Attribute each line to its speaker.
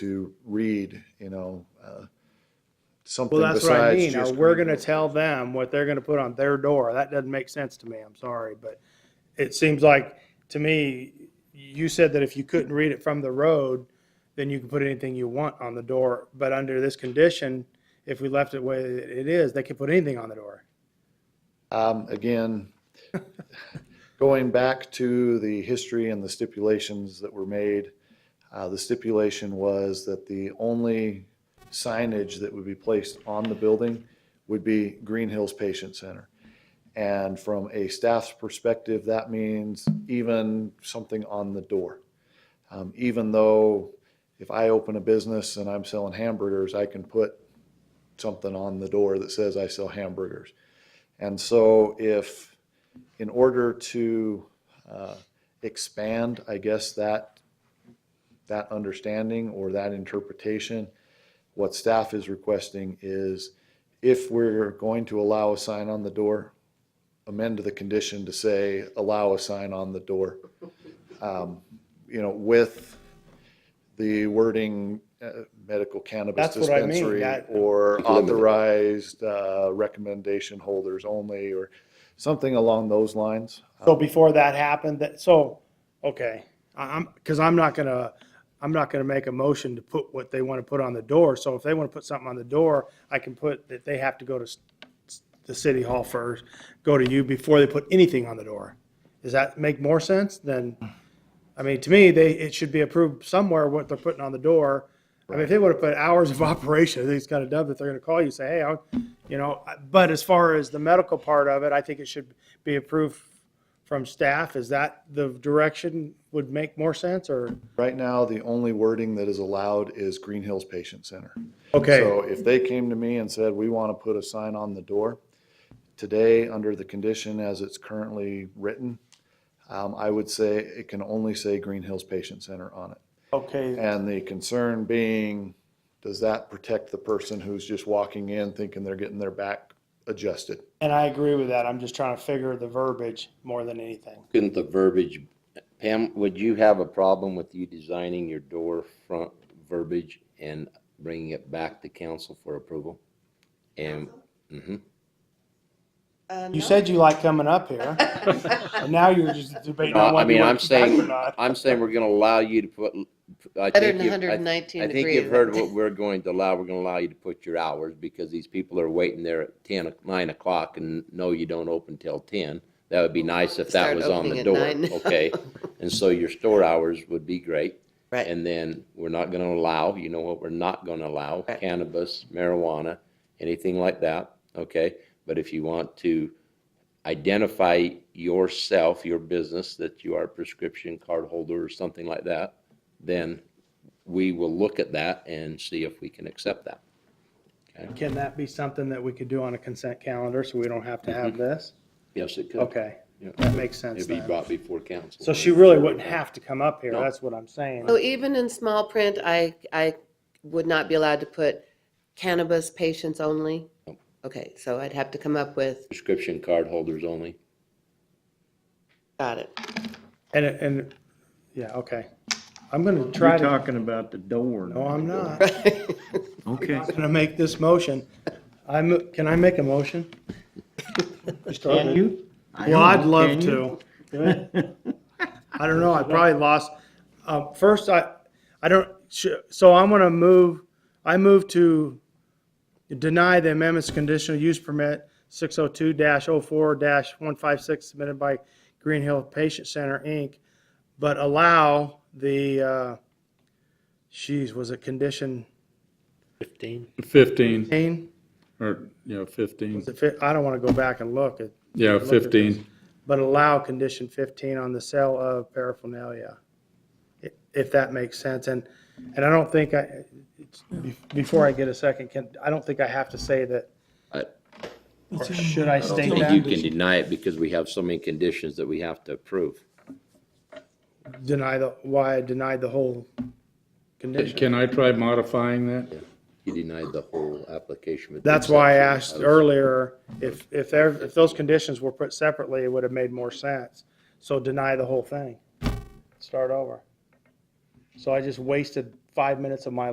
Speaker 1: to read, you know, uh, something
Speaker 2: Well, that's what I
Speaker 1: besides
Speaker 2: mean. Now,
Speaker 1: just.
Speaker 2: we're
Speaker 1: green.
Speaker 2: gonna tell them what they're gonna put on their door. That doesn't make sense to me. I'm sorry, but it seems like, to me, you said that if you couldn't read it from the road, then you can put anything you want on the door. But under this condition, if we left it where it is, they could put anything on the door.
Speaker 1: Um, Again, going back to the history and the stipulations that were made, uh, the stipulation was that the only signage that would be placed on the building would be Green Hills Patient Center. And from a staff's perspective, that means even something on the door. Um, Even though if I open a business and I'm selling hamburgers, I can put something on the door that says I sell hamburgers. And so if, in order to uh, expand, I guess, that, that understanding or that interpretation, what staff is requesting is if we're going to allow a sign on the door, amend the condition to say, allow a sign on the door. Um, You know, with the wording, uh, medical cannabis
Speaker 2: That's what I mean,
Speaker 1: dispensary
Speaker 2: that-
Speaker 1: or authorized uh, recommendation holders only, or something along those lines.
Speaker 2: So before that happened, that, so, okay, I- I'm, because I'm not gonna, I'm not gonna make a motion to put what they want to put on the door. So if they want to put something on the door, I can put that they have to go to s- s- the city hall first, go to you before they put anything on the door. Does that make more sense than, I mean, to me, they, it should be approved somewhere what they're putting on the door. I mean, if they would have put hours of operation, I think it's kind of dumb that they're gonna call you, and say, hey, I'll, you know, I- but as far as the medical part of it, I think it should be approved from staff, is that the direction would make more sense or?
Speaker 1: Right now, the only wording that is allowed is Green Hills Patient Center. So
Speaker 2: Okay,
Speaker 1: if they came to me and said, we want to put a sign on the door, today, under the condition as it's currently written, um, I would say it can only say Green Hills Patient Center on it.
Speaker 2: okay,
Speaker 1: And the concern being, does that protect the person who's just walking in thinking they're getting their back adjusted?
Speaker 2: and I agree with that. I'm just trying to figure the verbiage more than anything.
Speaker 3: Couldn't the verbiage, Pam, would you have a problem with you designing your door front verbiage and bringing it back to council for approval? And, hmm
Speaker 4: Uh,
Speaker 2: You
Speaker 4: no.
Speaker 2: said you like coming up here, and now you're just debating on
Speaker 3: No, I
Speaker 2: whether you
Speaker 3: mean,
Speaker 2: want to
Speaker 3: I'm
Speaker 2: come back
Speaker 3: saying-
Speaker 2: or not.
Speaker 3: I'm saying we're gonna allow you to put, I
Speaker 4: Better
Speaker 3: think
Speaker 4: than
Speaker 3: you, I
Speaker 4: 119
Speaker 3: I
Speaker 4: degrees.
Speaker 3: think you've heard what we're going to allow. We're gonna allow you to put your hours because these people are waiting there at ten, o- nine o'clock and no, you don't open till ten. That would be nice if that
Speaker 4: Start
Speaker 3: was on the
Speaker 4: opening at
Speaker 3: door,
Speaker 4: nine.
Speaker 3: okay? And so your store hours would be great.
Speaker 4: Right.
Speaker 3: And then we're not gonna allow, you know what, we're not gonna allow
Speaker 4: Right.
Speaker 3: cannabis, marijuana, anything like that, okay? But if you want to identify yourself, your business, that you are a prescription card holder or something like that, then we will look at that and see if we can accept that.
Speaker 2: Can that be something that we could do on a consent calendar so we don't have to have this?
Speaker 3: Yes, it could.
Speaker 2: Okay,
Speaker 3: Yeah.
Speaker 2: that makes sense
Speaker 3: Mm-hmm. It'd be
Speaker 2: then.
Speaker 3: brought before council.
Speaker 2: So she really wouldn't have to come up here,
Speaker 3: No.
Speaker 2: that's what I'm saying.
Speaker 4: So even in small print, I, I would not be allowed to put cannabis patients only?
Speaker 3: Nope.
Speaker 4: Okay, so I'd have to come up with,
Speaker 3: Prescription card holders only.
Speaker 4: got it.
Speaker 2: And, it- and, yeah, okay. I'm gonna try
Speaker 5: You're
Speaker 2: to,
Speaker 5: talking about the door.
Speaker 2: no, I'm not.
Speaker 5: Okay.
Speaker 2: I'm gonna make this motion. I'm, can I make a motion?
Speaker 5: Can you?
Speaker 2: Well, I'd love to. I don't know, I probably lost, uh, first, I, I don't, sh- so I'm gonna move, I move to deny the amendments to conditional use permit six oh two 4 one five six submitted by Green Hill Patient Center, Inc., but allow the, uh, geez, was it condition
Speaker 3: Fifteen?
Speaker 6: 15,
Speaker 2: eighteen?
Speaker 6: or, you know, 15,
Speaker 2: Was it fif- I don't want to go back and look at,
Speaker 6: yeah,
Speaker 2: at
Speaker 6: 15.
Speaker 2: but allow condition fifteen on the sale of paraphernalia. i- If that makes sense. And, and I don't think I, it's- be- before I get a second, can, I don't think I have to say that.
Speaker 3: I-
Speaker 2: Or should I
Speaker 3: I
Speaker 2: state
Speaker 3: think you
Speaker 2: that?
Speaker 3: can deny it because we have so many conditions that we have to approve.
Speaker 2: Deny the, why I denied the whole condition.
Speaker 6: Can I try modifying that?
Speaker 3: You denied the whole application. with the
Speaker 2: That's why I asked
Speaker 3: exception of-
Speaker 2: earlier, if, if there, if those conditions were put separately, it would have made more sense. So deny the whole thing. Start over. So I just wasted five minutes of my